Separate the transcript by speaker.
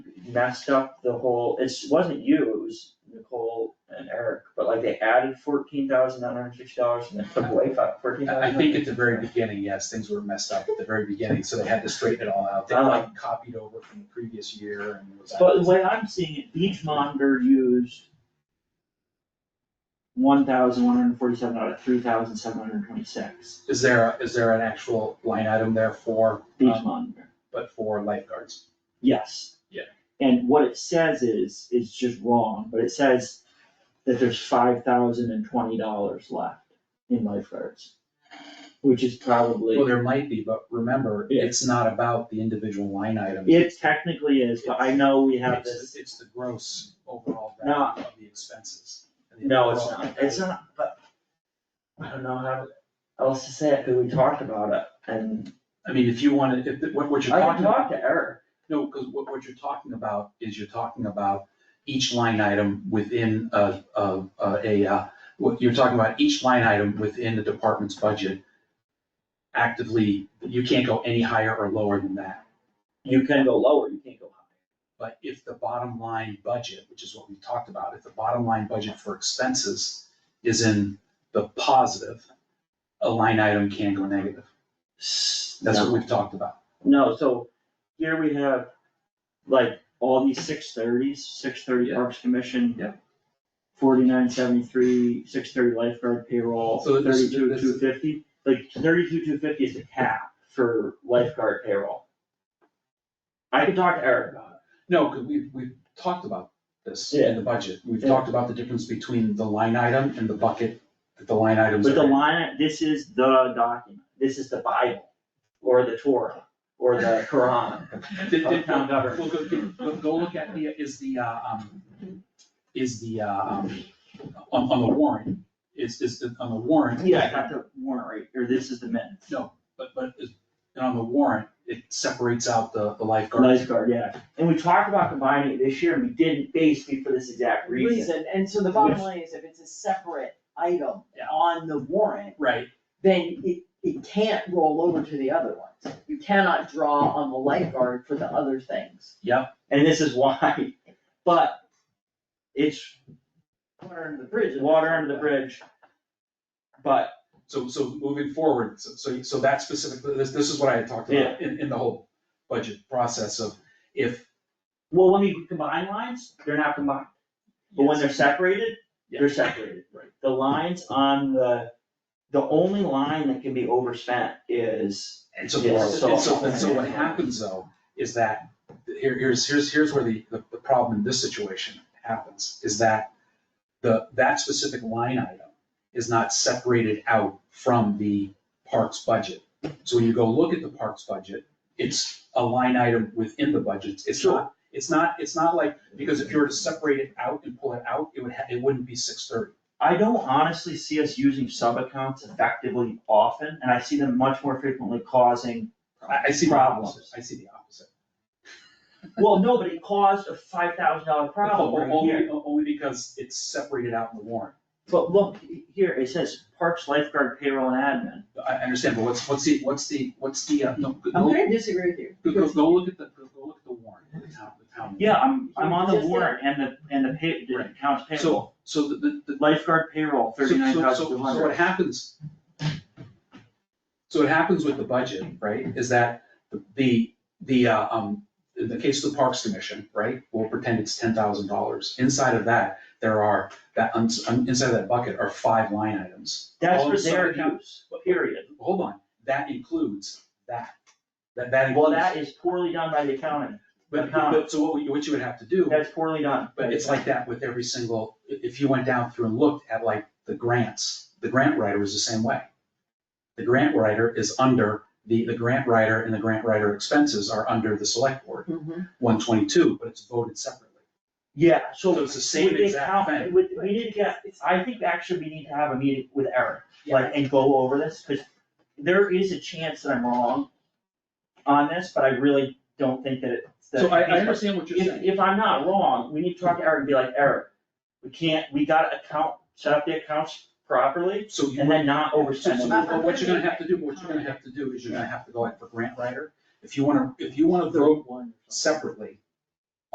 Speaker 1: messed up the whole, it wasn't you, it was Nicole and Eric, but like they added fourteen thousand nine hundred sixty dollars and then took away fourteen thousand.
Speaker 2: I think at the very beginning, yes, things were messed up at the very beginning, so they had to straighten it all out. They like copied over from the previous year and it was.
Speaker 3: But the way I'm seeing it, Beach Monitor used one thousand one hundred forty-seven out of three thousand seven hundred twenty-six,
Speaker 2: Is there, is there an actual line item there for,
Speaker 3: Beach
Speaker 2: um,
Speaker 3: Monitor,
Speaker 2: but for lifeguards?
Speaker 3: yes.
Speaker 2: Yeah.
Speaker 3: And what it says is, is just wrong, but it says that there's five thousand and twenty dollars left in lifeguards, which is
Speaker 2: Well,
Speaker 3: probably,
Speaker 2: there might be, but remember, it's not about the individual line item.
Speaker 3: it technically is, but I know we have
Speaker 2: It's-
Speaker 3: this,
Speaker 2: It's the gross overall
Speaker 3: No.
Speaker 2: value of the expenses.
Speaker 1: No, it's not, it's not, but I don't know how else to say it, but we talked about it and
Speaker 2: I mean, if you wanted, if, what, what you're
Speaker 1: I
Speaker 2: talking about.
Speaker 1: talked to Eric.
Speaker 2: No, because what, what you're talking about is you're talking about each line item within a, a, a, uh, what you're talking about each line item within the department's budget. Actively, you can't go any higher or lower than that.
Speaker 1: You can go lower, you can't go higher.
Speaker 2: But if the bottom line budget, which is what we talked about, if the bottom line budget for expenses is in the positive, a line item can go negative. That's what we've talked about.
Speaker 3: no, so here we have like all these six thirties, six thirty
Speaker 2: Yeah.
Speaker 3: Parks Commission.
Speaker 2: Yeah.
Speaker 3: Forty-nine seventy-three, six thirty lifeguard payroll,
Speaker 2: So this-
Speaker 3: thirty-two
Speaker 2: this-
Speaker 3: two fifty, like thirty-two two fifty is the cap for lifeguard payroll. I could talk to Eric about
Speaker 2: No, because we've, we've talked about this
Speaker 3: Yeah.
Speaker 2: in the budget. We've
Speaker 3: Yeah.
Speaker 2: talked about the difference between the line item and the bucket that the line
Speaker 3: it,
Speaker 2: items
Speaker 3: but the
Speaker 2: are in.
Speaker 3: line, this is the document, this is the Bible, or the Torah, or the Quran.
Speaker 2: Did- did-
Speaker 3: Uptown Dover.
Speaker 2: Well, go, go- go look at the, is the, uh, um, is the, uh, um, on, on the warrant, is, is the, on the warrant.
Speaker 3: Yeah, I got the warrant right, or this is the minutes.
Speaker 2: But, but, is- and on the warrant, it separates out the, the lifeguard.
Speaker 3: Lifeguard, yeah, and we talked about combining it this year, and we didn't basically for this exact reason.
Speaker 4: reason, and so the bottom line is if it's a separate item
Speaker 2: Yeah.
Speaker 4: on the warrant,
Speaker 2: Right,
Speaker 4: then it, it can't roll over to the other ones. You cannot draw on the lifeguard for the other things.
Speaker 3: And this is why, but it's
Speaker 4: Water under the bridge.
Speaker 3: water under the bridge. But
Speaker 2: so, so moving forward, so- so, so that specifically, this, this is what I had talked
Speaker 3: Yeah.
Speaker 2: about in, in the whole budget process of if
Speaker 3: Well, when we combine lines, they're not combined, but when
Speaker 2: Yes.
Speaker 3: they're separated, they're separated.
Speaker 2: Right.
Speaker 3: The lines on the, the only line that can be overspent is,
Speaker 2: And so,
Speaker 3: Yeah,
Speaker 2: and
Speaker 3: so-
Speaker 2: so, and so what happens though, is that, here, here's, here's, here's where the, the, the problem in this situation happens, is that the, that specific line item is not separated out from the parks budget. So when you go look at the parks budget, it's a line item within the budgets, it's not, it's not, it's not like, because if you were to separate it out and pull it out, it would, ha- it wouldn't be six thirty.
Speaker 3: I don't honestly see us using sub-accounts effectively often, and I see them much more frequently causing.
Speaker 2: I, I see the opposite,
Speaker 3: Problems.
Speaker 2: I see the opposite.
Speaker 3: Well, no, but it caused a five thousand dollar problem right here.
Speaker 2: Only, only because it's separated out in the warrant.
Speaker 3: But look, here, it says Parks Lifeguard Payroll and Admin.
Speaker 2: I I understand, but what's, what's the, what's the, what's the, uh, no, go,
Speaker 4: I'm
Speaker 2: go,
Speaker 4: gonna disagree with you.
Speaker 2: go- go look at the, go go look at the warrant, the town, the town.
Speaker 3: Yeah, I'm, I'm on the
Speaker 4: Just
Speaker 3: warrant and the, and the pay, the
Speaker 2: Right.
Speaker 3: accounts payable,
Speaker 2: So, so the, the, the.
Speaker 3: lifeguard payroll,
Speaker 2: so- so-
Speaker 3: thirty-nine
Speaker 2: so-
Speaker 3: thousand two
Speaker 2: So what
Speaker 3: hundred.
Speaker 2: happens? So what happens with the budget, right, is that the, the, uh, um, in the case of the Parks Commission, right, we'll pretend it's ten thousand dollars. Inside of that, there are, that, uns- um, inside of that bucket are five line items.
Speaker 3: That's
Speaker 2: All
Speaker 3: for
Speaker 2: the
Speaker 3: their
Speaker 2: sub-account-
Speaker 3: use, period.
Speaker 2: Hold on, that includes that, that, that includes.
Speaker 3: Well, that is poorly done by the accounting,
Speaker 2: But,
Speaker 3: But-
Speaker 2: but, so what, you- what you would have to do,
Speaker 3: that's poorly done.
Speaker 2: but it's like that with every single, i- if you went down through and looked at like the grants, the grant writer was the same way. The grant writer is under, the, the grant writer and the grant writer expenses are under the select board, one twenty-two, but it's voted separately.
Speaker 3: Yeah, so.
Speaker 2: So it's the same
Speaker 3: with the
Speaker 2: exact
Speaker 3: account-
Speaker 2: thing.
Speaker 3: with- we need to get, I think actually we need to have a meeting with Eric, like, and go over this, cause there is a chance that I'm wrong on this, but I really don't think that it's. that
Speaker 2: So I,
Speaker 3: it's-
Speaker 2: I understand what you're
Speaker 3: If,
Speaker 2: saying.
Speaker 3: if I'm not wrong, we need to talk to Eric and be like, Eric, we can't, we gotta account, set up the accounts properly
Speaker 2: So you.
Speaker 3: and then not
Speaker 2: So,
Speaker 3: overspend
Speaker 2: so
Speaker 3: them.
Speaker 2: what you're gonna have to do, what you're gonna have to do is you're gonna have to go in for grant writer. If you wanna, if you wanna vote
Speaker 3: one.
Speaker 2: separately,